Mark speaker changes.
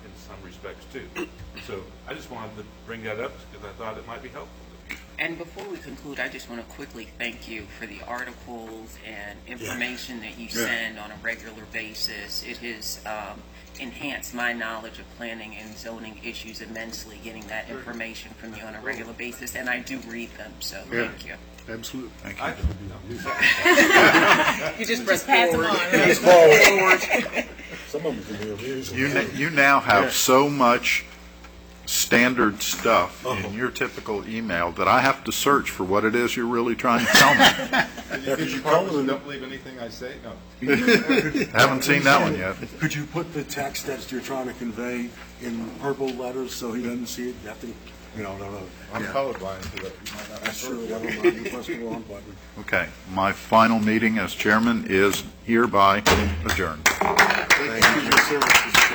Speaker 1: respects too. So I just wanted to bring that up because I thought it might be helpful.
Speaker 2: And before we conclude, I just want to quickly thank you for the articles and information that you send on a regular basis. It has um, enhanced my knowledge of planning and zoning issues immensely, getting that information from you on a regular basis, and I do read them, so
Speaker 3: Yeah.
Speaker 2: thank you.
Speaker 3: Absolutely.
Speaker 1: I,
Speaker 2: You just press forward.
Speaker 4: Some of them can be abused.
Speaker 5: You, n- you now have so much standard stuff in your typical email that I have to search for what it is you're really trying to tell me.
Speaker 4: Because you come with them,
Speaker 1: believe anything I say? No.
Speaker 5: Haven't seen that one yet.
Speaker 6: Could you put the text that you're trying to convey in purple letters so he doesn't see it? You have to, you know, I don't know.
Speaker 4: I'm colorblind, so that you might not.
Speaker 6: That's true, I don't know, you press the wrong button.
Speaker 5: Okay, my final meeting as chairman is hereby adjourned.
Speaker 3: Thank you for your service.